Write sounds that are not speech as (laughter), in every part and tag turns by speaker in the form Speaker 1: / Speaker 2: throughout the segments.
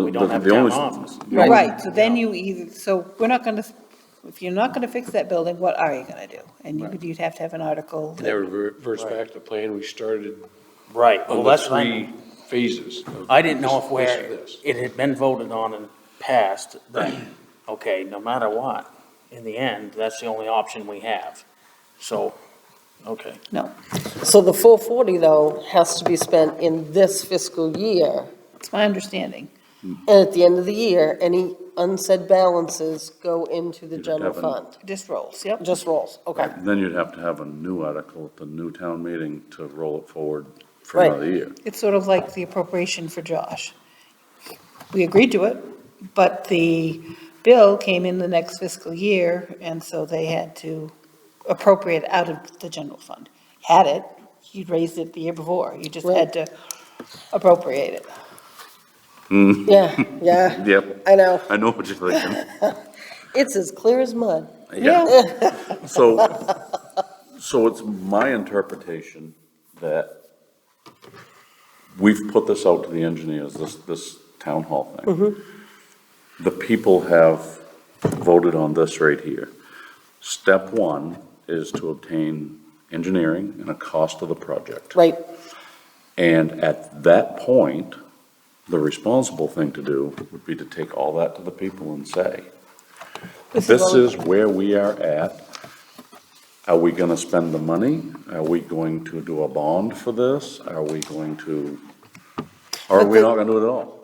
Speaker 1: we don't have a
Speaker 2: The
Speaker 1: town
Speaker 2: only-
Speaker 1: office.
Speaker 3: Right, so then you either, so we're not gonna, if you're not gonna fix that building, what are you gonna do? And you would, you'd have to have an article.
Speaker 4: And that would reverse back to the plan we started
Speaker 1: Right, well,
Speaker 4: on the
Speaker 1: that's what I,
Speaker 4: three phases. of
Speaker 1: I didn't know if
Speaker 4: this- this,
Speaker 1: where
Speaker 4: this.
Speaker 1: it had been voted on and passed, that, okay, no matter what, in the end, that's the only option we have. So, okay.
Speaker 5: So the full 40, though, has to be spent in this fiscal year.
Speaker 3: It's my understanding.
Speaker 5: And at the end of the year, any unsaid balances go into the
Speaker 2: You'd
Speaker 5: general
Speaker 2: have an-
Speaker 5: fund.
Speaker 3: Just rolls, yep.
Speaker 5: Just rolls, okay.
Speaker 2: Then you'd have to have a new article at the new town meeting to roll it forward for
Speaker 5: Right.
Speaker 2: another year.
Speaker 3: It's sort of like the appropriation for Josh. We agreed to it, but the bill came in the next fiscal year, and so they had to appropriate out of the general fund. Had it, you'd raised it the year before, you just had to appropriate it.
Speaker 5: Yeah, yeah,
Speaker 2: Hmm. Yep,
Speaker 5: I know.
Speaker 2: I know what you're thinking.
Speaker 5: It's as clear as mud.
Speaker 2: Yeah. So, so it's my interpretation that we've put this out to the engineers, this, this town hall thing. The people have voted on this right here. Step one is to obtain engineering and a cost of the project.
Speaker 5: Right,
Speaker 2: And at that point, the responsible thing to do would be to take all that to the people and say,
Speaker 5: This is
Speaker 2: this
Speaker 5: all-
Speaker 2: is where we are at. Are we gonna spend the money? Are we going to do a bond for this? Are we going to, or are
Speaker 5: But
Speaker 2: we
Speaker 5: the-
Speaker 2: not gonna do it at all?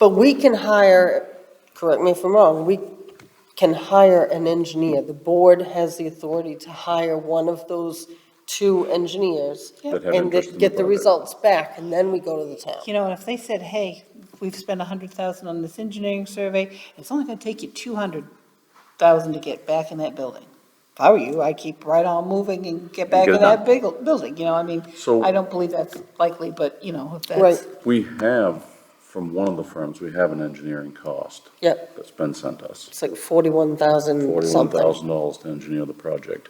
Speaker 5: but we can hire, correct me if I'm wrong, we can hire an engineer. The board has the authority to hire one of those two engineers
Speaker 2: That have
Speaker 5: and
Speaker 2: interest in the
Speaker 5: get get the
Speaker 2: project.
Speaker 5: results back, and then we go to the town.
Speaker 3: You know, and if they said, hey, we've spent a hundred thousand on this engineering survey, it's only gonna take you two hundred thousand to get back in that building. If I were you, I'd keep right on moving and get back
Speaker 2: get
Speaker 3: in
Speaker 2: it
Speaker 3: that big, building, you know, I mean,
Speaker 2: So-
Speaker 3: I don't believe that's likely, but, you know, if
Speaker 5: Right.
Speaker 3: that's,
Speaker 2: We have, from one of the firms, we have an engineering cost
Speaker 5: Yep.
Speaker 2: that's been sent us.
Speaker 5: It's like forty-one thousand
Speaker 2: forty-one
Speaker 5: something.
Speaker 2: thousand dollars to engineer the project.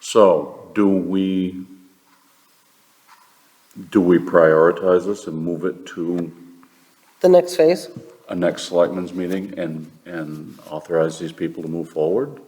Speaker 2: So, do we, do we prioritize this and move it to
Speaker 5: The next phase,
Speaker 2: a next selectmen's meeting and, and authorize these people to move forward?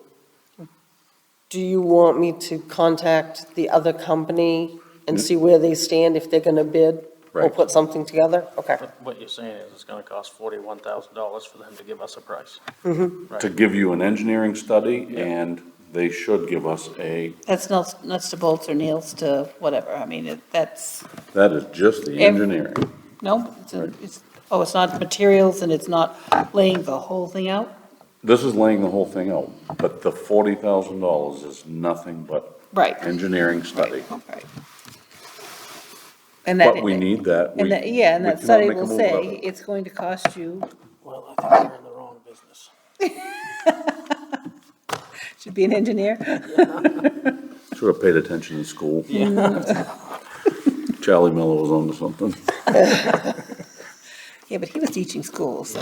Speaker 5: do you want me to contact the other company and see where they stand, if they're gonna bid? Or
Speaker 2: Mm-hmm. Right.
Speaker 5: put something together? Okay,
Speaker 1: But what you're saying is it's gonna cost forty-one thousand dollars for them to give us a price.
Speaker 2: To give you an engineering study, and they should give us a,
Speaker 3: that's nuts, nuts to bolts or nails to whatever, I mean, it- that's,
Speaker 2: that is just the
Speaker 3: Ev-
Speaker 2: engineering.
Speaker 3: no, it's, a-
Speaker 2: Right.
Speaker 3: it's, oh, it's not materials and it's not laying the whole thing out?
Speaker 2: This is laying the whole thing out, but the forty thousand dollars is nothing but
Speaker 3: Right,
Speaker 2: engineering study.
Speaker 3: right. And that.
Speaker 2: But we need that. We-
Speaker 3: And that, yeah, and
Speaker 2: we
Speaker 3: that
Speaker 2: cannot
Speaker 3: study
Speaker 2: make a
Speaker 3: will
Speaker 2: move without
Speaker 3: say,
Speaker 2: it.
Speaker 3: it's going to cost you,
Speaker 1: Well, I think we're in the wrong business.
Speaker 3: should be an engineer,
Speaker 2: Should have paid attention in school. (laughs) Charlie Miller was onto something.
Speaker 3: yeah, but he was teaching school, so.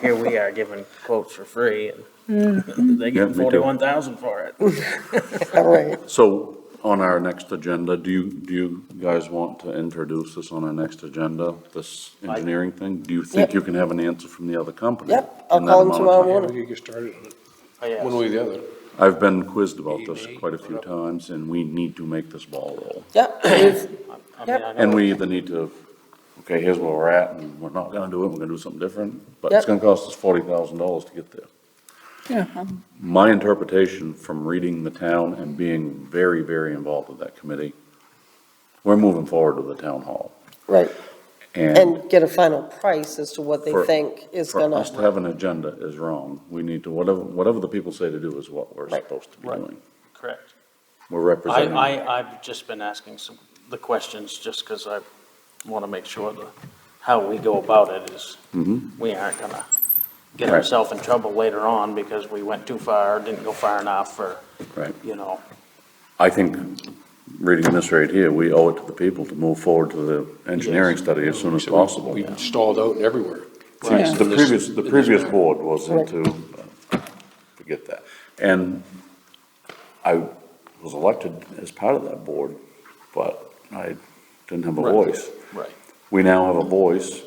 Speaker 1: Here we are giving quotes for free and (laughs) they
Speaker 2: Yeah,
Speaker 1: get
Speaker 2: me too.
Speaker 1: forty-one thousand for it.
Speaker 5: (laughs) all right.
Speaker 2: So on our next agenda, do you, do you guys want to introduce this on our next agenda, this engineering thing? Do you think
Speaker 5: Yep.
Speaker 2: you can have an answer from the other company?
Speaker 5: Yep, I'll
Speaker 2: in that
Speaker 5: call them
Speaker 2: amount of
Speaker 5: tomorrow
Speaker 2: time?
Speaker 4: Yeah,
Speaker 5: morning.
Speaker 4: we could get started on it,
Speaker 1: I asked.
Speaker 4: one way or the other.
Speaker 2: I've been quizzed about this
Speaker 4: Maybe.
Speaker 2: quite a few times, and we need to make this ball roll.
Speaker 5: Yep, we've-
Speaker 1: I mean, I know
Speaker 2: And we either need to, okay, here's where we're at, and we're not gonna do it, we're gonna do something different, but it's gonna
Speaker 5: Yep.
Speaker 2: cost us forty thousand dollars to get there.
Speaker 3: Uh-huh.
Speaker 2: My interpretation from reading the town and being very, very involved with that committee, we're moving forward to the town hall.
Speaker 5: right,
Speaker 2: And
Speaker 5: and get a final price as to what they
Speaker 2: For-
Speaker 5: think is
Speaker 2: for us to
Speaker 5: gonna,
Speaker 2: have an agenda is wrong. We need to, whatever, whatever the people say to do is what we're
Speaker 5: Right.
Speaker 2: supposed to be
Speaker 1: Right.
Speaker 2: doing.
Speaker 1: Correct.
Speaker 2: We're
Speaker 1: I,
Speaker 2: representing.
Speaker 1: I, I've just been asking some, the questions, just because I want to make sure that how we go about it is,
Speaker 2: Mhm.
Speaker 1: we aren't gonna get
Speaker 2: Right.
Speaker 1: ourselves in trouble later on because we went too far, didn't go far enough, or,
Speaker 2: Right.
Speaker 1: you know,
Speaker 2: I think, reading this right here, we owe it to the people to move forward to the engineering study as soon as
Speaker 4: So we-
Speaker 2: possible.
Speaker 4: We stalled out everywhere.
Speaker 2: See, The previous, the previous board was into, uh, forget that. And I was elected as part of that board, but I didn't have a
Speaker 1: Right.
Speaker 2: voice.
Speaker 1: right.
Speaker 2: We now have a voice.